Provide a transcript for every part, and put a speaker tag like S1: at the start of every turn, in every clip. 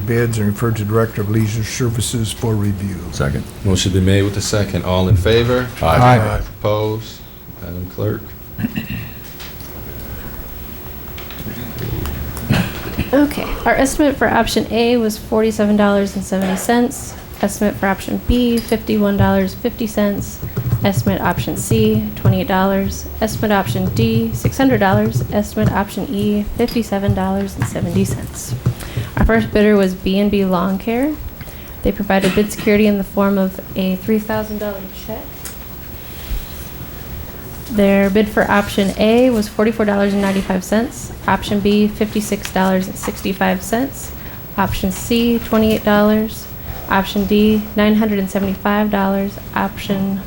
S1: bids and refer to Director of Leisure Services for review.
S2: Second.
S3: Motion be made with the second. All in favor?
S1: Aye.
S3: Opposed? Madam Clerk?
S4: Okay, our estimate for option A was forty-seven dollars and seventy cents. Estimate for option B, fifty-one dollars fifty cents. Estimate option C, twenty-eight dollars. Estimate option D, six hundred dollars. Estimate option E, fifty-seven dollars and seventy cents. Our first bidder was B and B Lawn Care. They provided bid security in the form of a three thousand dollar check. Their bid for option A was forty-four dollars and ninety-five cents, option B fifty-six dollars and sixty-five cents, option C twenty-eight dollars, option D nine hundred and seventy-five dollars, option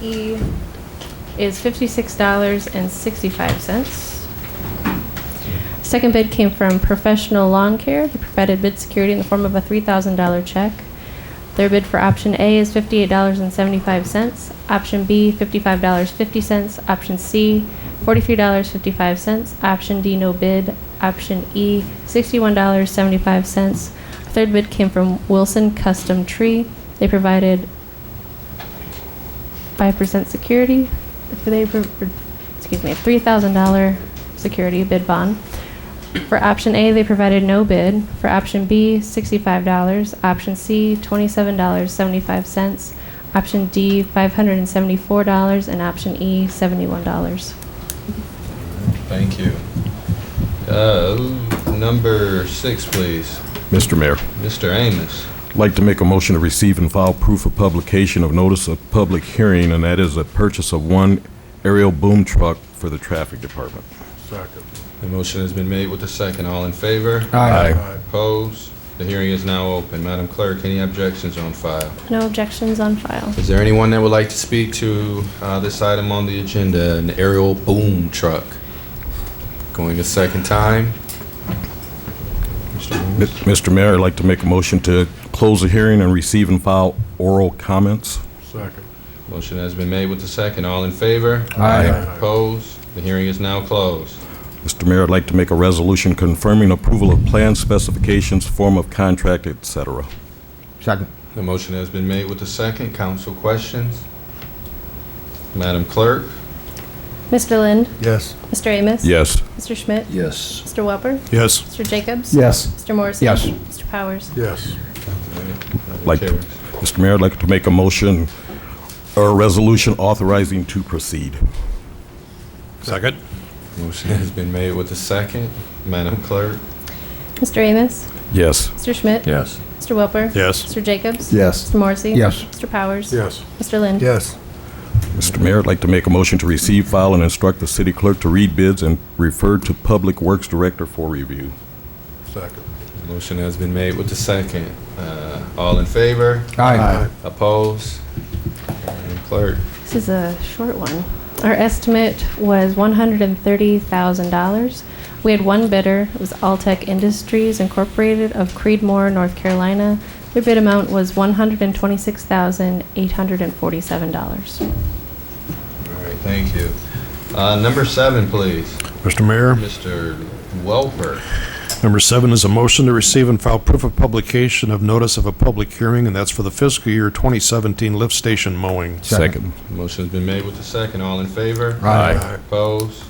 S4: E is fifty-six dollars and sixty-five cents. Second bid came from Professional Lawn Care. They provided bid security in the form of a $3,000 check. Their bid for option A is $58.75, option B, $55.50, option C, $43.55, option D, no bid, option E, $61.75. Third bid came from Wilson Custom Tree. They provided 5% security, they, pro- excuse me, $3,000 security bid bond. For option A, they provided no bid. For option B, $65. Option C, $27.75. Option D, $574. And option E, $71.
S3: Thank you. Uh, Number six, please.
S2: Mr. Mayor,
S3: Mr. Amos.
S2: I'd like to make a motion to receive and file proof of publication of notice of public hearing, and that is a purchase of one aerial boom truck for the traffic department.
S3: The motion has been made with the second. All in favor? Opposed? The hearing is now open. Madam Clerk, any objections on file?
S4: No objections on file.
S3: Is there anyone that would like to speak to uh, this item on the agenda, an aerial boom truck? Going a second time?
S2: Mi- Mr. Mayor, I'd like to make a motion to close the hearing and receive and file oral comments.
S3: Motion has been made with the second. All in favor?
S2: Aye.
S3: Opposed? The hearing is now closed.
S2: Mr. Mayor, I'd like to make a resolution confirming approval of plan specifications, form of contract, et cetera.
S5: Second.
S3: The motion has been made with the second. Council questions? Madam Clerk?
S4: Mr. Lind?
S1: Yes.
S4: Mr. Amos?
S2: Yes.
S4: Mr. Schmidt?
S5: Yes.
S4: Mr. Welper?
S2: Yes.
S4: Mr. Jacobs?
S5: Yes.
S4: Mr. Morrissey?
S5: Yes.
S4: Mr. Powers?
S1: Yes.
S2: Like-
S3: Carries.
S2: Mr. Mayor, I'd like to make a motion or a resolution authorizing to proceed. Second.
S3: Motion has been made with the second. Madam Clerk?
S4: Mr. Amos?
S2: Yes.
S4: Mr. Schmidt?
S5: Yes.
S4: Mr. Welper?
S2: Yes.
S4: Mr. Jacobs?
S5: Yes.
S4: Mr. Morrissey?
S5: Yes.
S4: Mr. Powers?
S1: Yes.
S4: Mr. Lind?
S1: Yes.
S2: Mr. Mayor, I'd like to make a motion to receive, file, and instruct the city clerk to read bids and refer to Public Works Director for review.
S1: Second.
S3: Motion has been made with the second. Uh, All in favor?
S1: Aye.
S3: Opposed? Madam Clerk?
S4: This is a short one. Our estimate was $130,000. We had one bidder, it was Alltech Industries Incorporated of Creedmoor, North Carolina. Their bid amount was $126,847.
S3: All right, thank you. Uh, Number seven, please.
S6: Mr. Mayor,
S3: Mr. Welper.
S6: number seven is a motion to receive and file proof of publication of notice of a public hearing, and that's for the fiscal year 2017 lift station mowing.
S2: Second.
S3: Motion's been made with the second. All in favor?
S5: Aye.
S3: Opposed?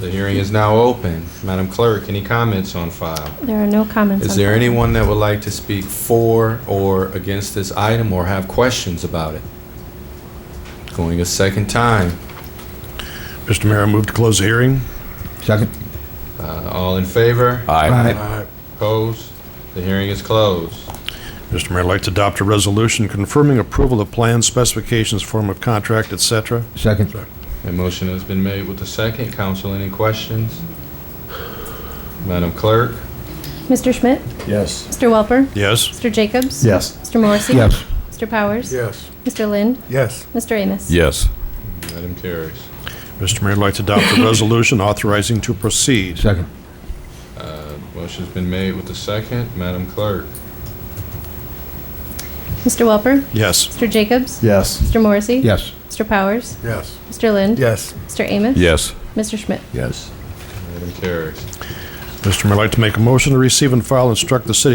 S3: The hearing is now open. Madam Clerk, any comments on file?
S4: There are no comments.
S3: Is
S4: on
S3: there
S4: that.
S3: anyone that would like to speak for or against this item or have questions about it? Going a second time.
S6: Mr. Mayor, I move to close the hearing.
S5: Second.
S3: Uh, All in favor?
S2: Aye.
S1: Aye.
S3: Opposed? The hearing is closed.
S6: Mr. Mayor, I'd like to adopt a resolution confirming approval of plans, specifications, form of contract, et cetera.
S5: Second.
S3: A motion has been made with the second. Council, any questions? Madam Clerk?
S4: Mr. Schmidt?
S5: Yes.
S4: Mr. Welper?
S6: Yes?
S4: Mr. Jacobs?
S5: Yes.
S4: Mr. Morrissey?
S5: Yes.
S4: Mr. Powers?
S1: Yes.
S4: Mr. Lind?
S1: Yes.
S4: Mr. Amos?
S2: Yes.
S3: Item carries.
S6: Mr. Mayor, I'd like to adopt a resolution authorizing to proceed.
S5: Second.
S3: Motion's been made with the second. Madam Clerk?
S4: Mr. Welper?
S6: Yes.
S4: Mr. Jacobs?
S5: Yes.
S4: Mr. Morrissey?
S5: Yes.
S4: Mr. Powers?
S1: Yes.
S4: Mr. Lind?
S1: Yes.
S4: Mr. Amos?
S2: Yes.
S4: Mr. Schmidt?
S5: Yes.
S3: Item carries.
S6: Mr. Mayor, I'd like to make a motion to receive and file, instruct the city